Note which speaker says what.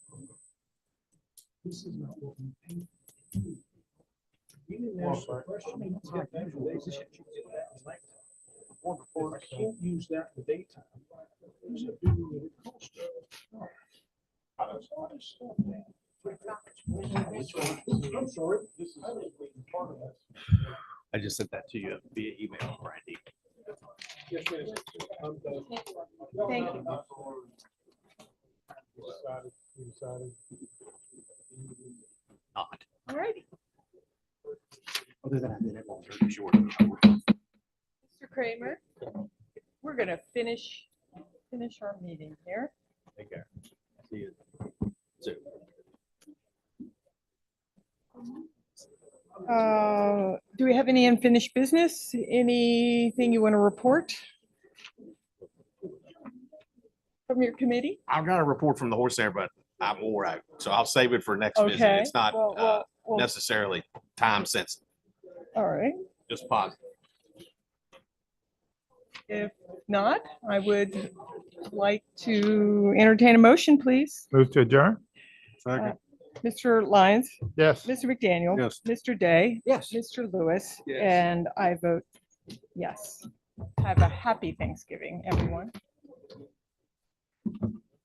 Speaker 1: This is not what we paid. You didn't ask the question. It's got that for days. This shit you did that in length. If I can't use that in the daytime. There's a big little cost. I don't know this stuff, man. I'm sorry. This is. I was waiting part of that.
Speaker 2: I just sent that to you via email, Randy.
Speaker 1: Yes, it is. I'm done.
Speaker 3: Thank you.
Speaker 1: Decided, decided.
Speaker 2: Not.
Speaker 3: All righty,
Speaker 2: Other than I did it all very short. of an hour.
Speaker 3: Mr. Kramer, we're gonna finish, finish our meeting here.
Speaker 2: Take care. See you soon.
Speaker 3: Uh, Do we have any unfinished business? Anything you want to report? From your committee?
Speaker 2: I've got a report from the horse there, but I'm all right. So I'll save it for next visit.
Speaker 3: Okay.
Speaker 2: It's not
Speaker 3: Well,
Speaker 2: uh,
Speaker 3: well, well,
Speaker 2: necessarily time sensitive,
Speaker 3: All right.
Speaker 2: just positive.
Speaker 3: If not, I would like to entertain a motion, please.
Speaker 4: Move to adjourn?
Speaker 3: Second. Mr. Lyons,
Speaker 4: Yes.
Speaker 3: Mr. McDaniel.
Speaker 4: Yes.
Speaker 3: Mr. Day,
Speaker 2: Yes.
Speaker 3: Mr. Lewis,
Speaker 2: Yes.
Speaker 3: and I vote yes. Have a happy Thanksgiving, everyone.